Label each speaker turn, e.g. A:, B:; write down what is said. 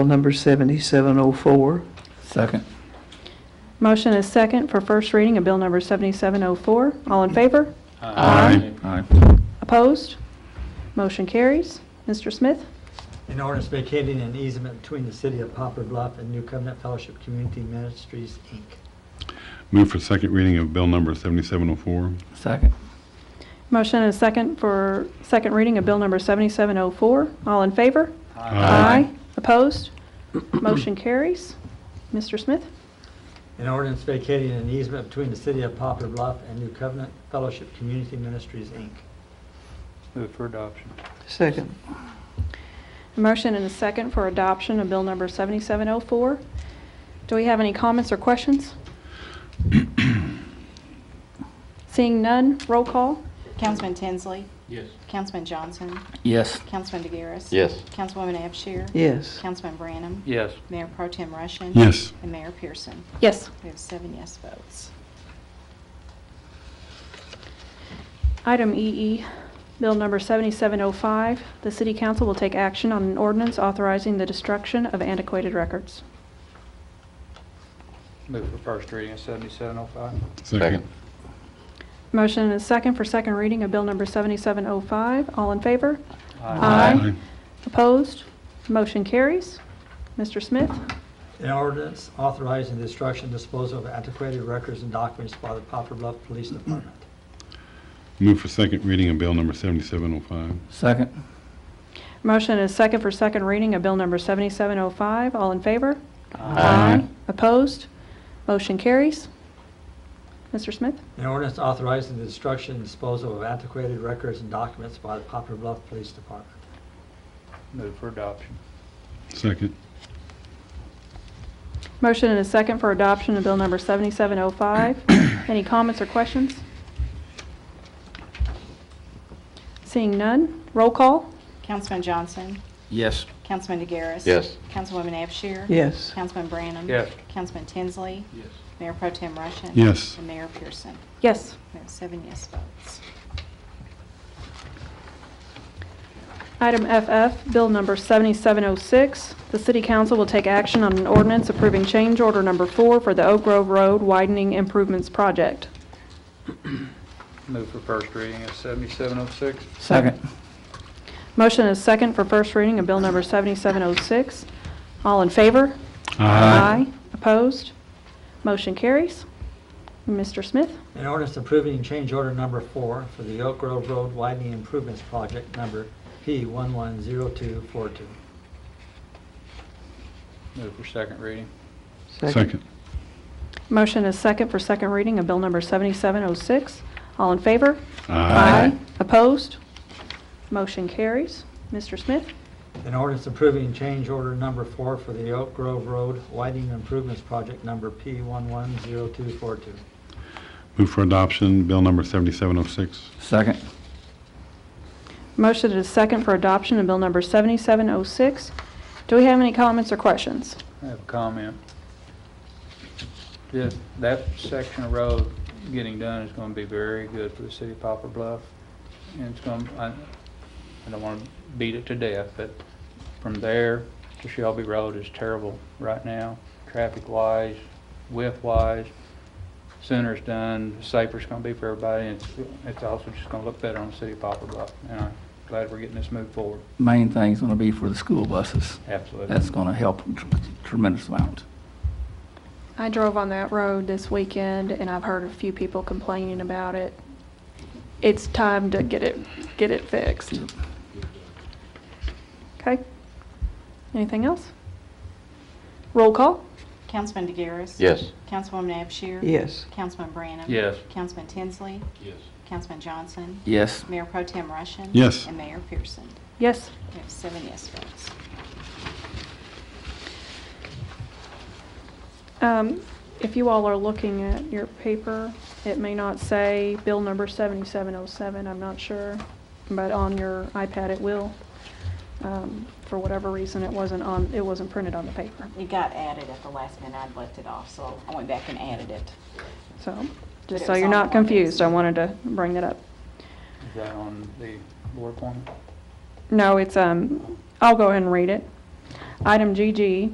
A: Bill number 7704.
B: Second.
C: Motion is second for first reading of Bill Number 7704. All in favor? Aye.
B: Aye.
C: Opposed? Motion carries. Mr. Smith?
D: An ordinance vacating an easement between the city of Poplar Bluff and New Covenant Fellowship Community Ministries, Inc.
E: Move for second reading of bill number 7704.
B: Second.
C: Motion is second for second reading of Bill Number 7704. All in favor? Opposed? Motion carries. Mr. Smith?
D: An ordinance vacating an easement between the city of Poplar Bluff and New Covenant Fellowship Community Ministries, Inc.
B: Move for adoption.
A: Second.
C: Motion and a second for adoption of Bill Number 7704. Do we have any comments or questions? Seeing none, roll call.
F: Councilman Tinsley.
G: Yes.
F: Councilman Johnson.
B: Yes.
F: Councilman DeGaris.
G: Yes.
F: Councilwoman Abshir.
A: Yes.
F: Councilman Branham.
B: Yes.
F: Mayor Pro Tem Russian.
E: Yes.
F: And Mayor Pearson.
C: Yes.
F: We have seven yes votes.
C: Item EE, Bill Number 7705, the City Council will take action on an ordinance authorizing the destruction of antiquated records.
B: Move for first reading oh of 7705.
E: Second.
C: Motion and a second for second reading of Bill Number 7705. All in favor?
E: Aye.
C: Opposed? Motion carries. Mr. Smith?
D: An ordinance authorizing the destruction and disposal of antiquated records and documents by the Poplar Bluff Police Department.
E: Move for second reading of bill number 7705.
B: Second.
C: Motion and a second for second reading of Bill Number 7705. All in favor? Opposed? Motion carries. Mr. Smith?
D: An ordinance authorizing the destruction and disposal of antiquated records and documents by the Poplar Bluff Police Department.
B: Move for adoption.
E: Second.
C: Motion and a second for adoption of Bill Number 7705. Any comments or questions? Seeing none, roll call.
F: Councilman Johnson.
B: Yes.
F: Councilman DeGaris.
G: Yes.
F: Councilwoman Abshir.
A: Yes.
F: Councilman Branham.
B: Yes.
F: Councilman Tinsley.
G: Yes.
F: Mayor Pro Tem Russian.
E: Yes.
F: And Mayor Pearson.
C: Yes.
F: We have seven yes votes.
C: Item FF, Bill Number 7706. The City Council will take action on an ordinance approving change order number four for the Oak Grove Road Widening Improvements Project.
B: Move for first reading oh of 7706. Second.
C: Motion is second for first reading of Bill Number 7706. All in favor? Opposed? Motion carries. Mr. Smith?
D: An ordinance approving change order number four for the Oak Grove Road Widening Improvements Project number P110242.
B: Move for second reading.
E: Second.
C: Motion is second for second reading of Bill Number 7706. All in favor? Opposed? Motion carries. Mr. Smith?
D: An ordinance approving change order number four for the Oak Grove Road Widening Improvements Project number P110242.
E: Move for adoption, bill number 7706.
B: Second.
C: Motion is second for adoption of Bill Number 7706. Do we have any comments or questions?
B: I have a comment. Yeah, That section of road getting done is gonna be very good for the city of Poplar Bluff. And it's gonna, I, I don't wanna beat it to death, but from there to Shelby Road is terrible right now, traffic wise, width wise. Sooner it's done, the safer it's gonna be for everybody, and it's, it's also just gonna look better on the city of Poplar Bluff. And I'm glad we're getting this moved forward,
H: main thing's gonna be for the school buses.
B: absolutely.
H: That's gonna help tremendous amount.
C: I drove on that road this weekend, and I've heard a few people complaining about it. It's time to get it, get it fixed. Okay? Anything else? Roll call?
F: Councilman DeGaris.
G: Yes.
F: Councilwoman Abshir.
A: Yes.
F: Councilman Branham.
B: Yes.
F: Councilman Tinsley.
G: Yes.
F: Councilman Johnson.
H: Yes,
F: Mayor Pro Tem Russian.
E: Yes.
F: And Mayor Pearson.
C: Yes.
F: We have seven yes votes.
C: Um, If you all are looking at your paper, it may not say bill number 7707, I'm not sure, but on your iPad it will. Um, For whatever reason, it wasn't on, it wasn't printed on the paper.
F: It got added at the last minute. I'd left it off, so I went back and added it.
C: So,
F: But
C: just
F: it
C: so
F: was
C: you're
F: on
C: not
F: the ordinance.
C: confused, I wanted to bring that up.
B: Is that on the board corner?
C: No, it's, um, I'll go ahead and read it. Item GG,